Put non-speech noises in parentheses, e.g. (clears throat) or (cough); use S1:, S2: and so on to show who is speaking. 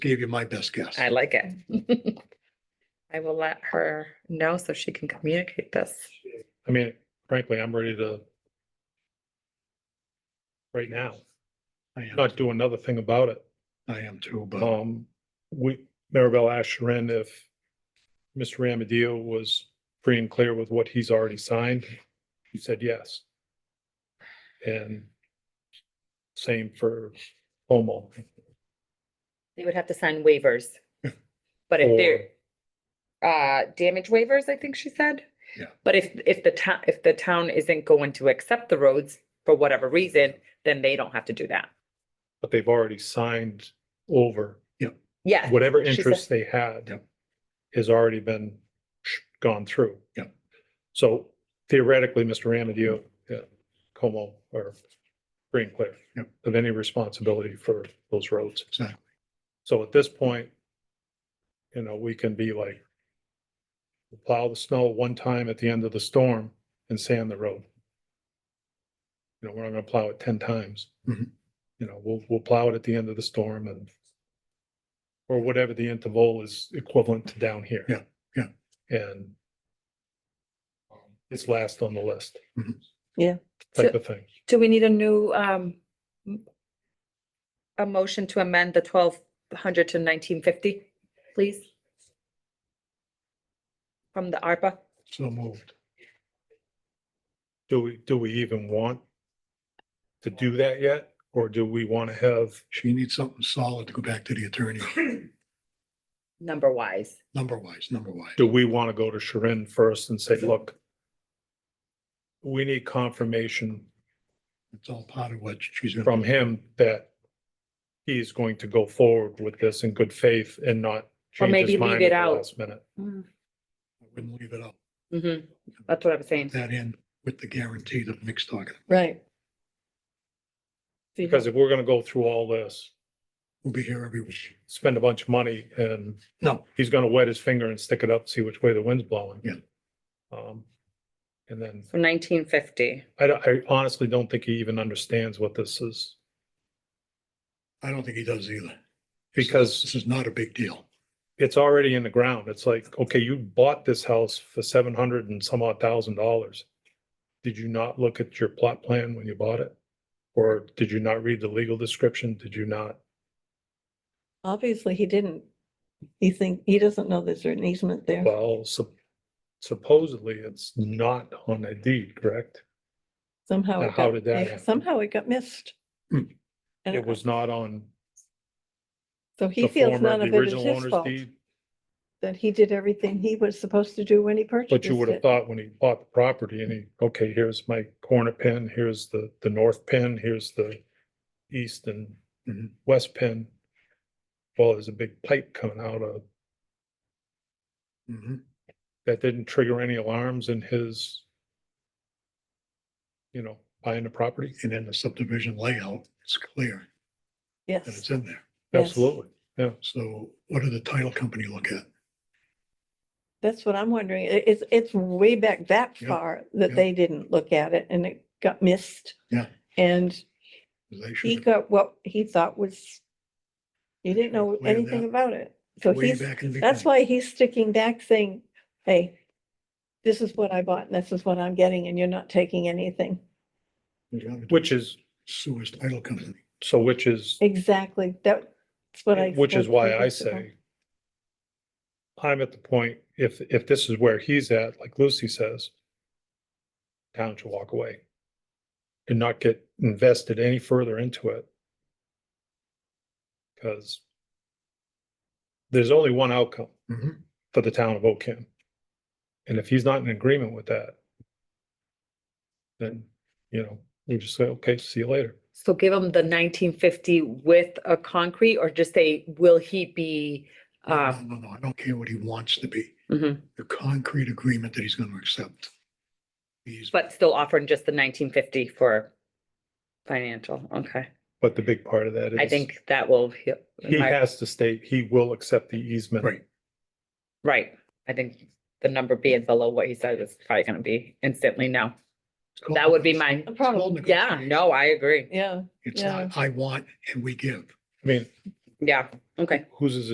S1: gave you my best guess.
S2: I like
S3: (laughs)
S2: it. I will let her know so she can communicate this.
S3: I mean, frankly, I'm ready to. Right now,
S1: I am,
S3: not do another thing about it.
S1: I am too, but
S3: Um, we, Maribel asked Sharon if. Mr. Ramadio was free and clear with what he's already signed. He said yes. And. Same for Homo.
S2: They would have to sign waivers. But if they're, uh, damage waivers, I think she said.
S1: Yeah.
S2: But if, if the town, if the town isn't going to accept the roads for whatever reason, then they don't have to do that.
S3: But they've already signed over
S2: Yeah.
S3: whatever
S2: she said-
S3: interest they had
S1: Yep.
S3: has already been sh- gone through.
S1: Yep.
S3: So theoretically, Mr. Ramadio, uh, Como or Green Cliff
S1: Yep.
S3: of any responsibility for those roads.
S1: Exactly.
S3: So at this point, you know, we can be like plow the snow one time at the end of the storm and sand the road. You know, we're not gonna plow it ten times.
S1: Mhm.
S3: You know, we'll, we'll plow it at the end of the storm and or whatever the interval is equivalent to down here.
S1: Yeah, yeah.
S3: And um, it's last on the list.
S1: Mhm.
S2: Yeah.
S3: Type of thing.
S2: Do we need a new, um, m- a motion to amend the twelve hundred to nineteen fifty, please? From the ARPA?
S1: so moved.
S3: Do we, do we even want to do that yet? Or do we want to have,
S1: She needs something solid to go back to the attorney,
S4: (clears throat)
S2: Number wise.
S1: number wise, number wise.
S3: do we want to go to Sharon first and say, look, we need confirmation
S1: It's all part of what she's gonna,
S3: from him that he's going to go forward with this in good faith and not
S2: Or
S3: change
S2: maybe
S3: his
S2: leave
S3: mind
S2: it
S3: at the
S2: out.
S3: last minute?
S1: I wouldn't leave it up.
S2: Mm-hmm, that's what I'm saying.
S1: That in with the guarantee that Nick's talking.
S2: Right.
S3: Because if we're gonna go through all this,
S1: We'll be here every week.
S3: spend a bunch of money and
S1: No,
S3: he's gonna wet his finger and stick it up, see which way the wind's blowing.
S1: Yeah.
S3: Um, and then
S2: So nineteen fifty,
S3: I don't, I honestly don't think he even understands what this is
S1: I don't think he does either. This
S3: because
S1: is not a big deal.
S3: it's already in the ground. It's like, okay, you bought this house for seven hundred and some odd thousand dollars. Did you not look at your plot plan when you bought it? Or did you not read the legal description? Did you not?
S4: Obviously, he didn't. He think, he doesn't know there's an easement there.
S3: Well, sup- supposedly it's not on a deed, correct?
S4: Somehow.
S3: now
S4: it
S3: how
S4: got-
S3: did that happen?
S4: Somehow it got missed.
S1: Hmm.
S3: (clears throat)
S4: And
S3: It was not on
S4: So he
S3: the
S4: feels
S3: former,
S4: none
S3: the
S4: of it is
S3: original
S4: his
S3: owner's
S4: fault,
S3: deed.
S4: that he did everything he was supposed to do when he purchased
S3: But you would have
S4: it.
S3: thought when he bought the property and he, okay, here's my corner pin, here's the, the north pin, here's the east and
S1: Mhm.
S3: west pin. Well, there's a big pipe coming out of,
S1: Mhm.
S3: that didn't trigger any alarms in his, you know, buying the property.
S1: And then the subdivision layout, it's clear that
S4: Yes,
S1: it's in there.
S4: Yes.
S3: Absolutely.
S1: So what did the title company look at?
S4: that's what I'm wondering. It- It's, it's way back that
S1: Yeah,
S4: far that
S1: yeah.
S4: they didn't look at it and it got missed.
S1: Yeah.
S4: And
S1: They
S4: he
S1: should,
S4: got what he thought was, he didn't know
S1: Way
S4: anything
S1: back-
S4: about it. So
S1: way
S4: he's
S1: back in the
S4: That's
S1: beginning.
S4: why he's sticking back saying, hey, this is what I bought and this is what I'm getting and you're not taking anything.
S1: You gotta do
S3: Which is,
S1: Sue his title company.
S3: so which is,
S4: Exactly. That's what I.
S3: which is
S4: explained to
S3: why
S4: the
S3: I
S4: principal.
S3: say I'm at the point, if, if this is where he's at, like Lucy says, town should walk away and not get invested any further into it. Because there's only one outcome
S1: Mhm.
S3: for the town of Oakham. And if he's not in agreement with that, then, you know, we just say, okay, see you later.
S2: so give him the nineteen fifty with a concrete or just say, will he be,
S1: No,
S2: um,
S1: no, no, I don't care what he wants to be.
S2: mhm,
S1: the concrete agreement that he's gonna accept. He's,
S2: but still offering just the nineteen fifty for financial, okay.
S3: But the big part of that is.
S2: I think that will, he-
S3: He
S2: my-
S3: has to state he will accept the easement.
S1: right,
S2: right, I think the number being below what he said is probably gonna be instantly no. That would be my,
S4: A
S1: It's called
S4: problem.
S2: yeah,
S1: negotiation.
S2: no, I agree,
S4: Yeah,
S1: It's not, I want and we give.
S3: I mean,
S2: yeah, Okay.
S3: whose is it?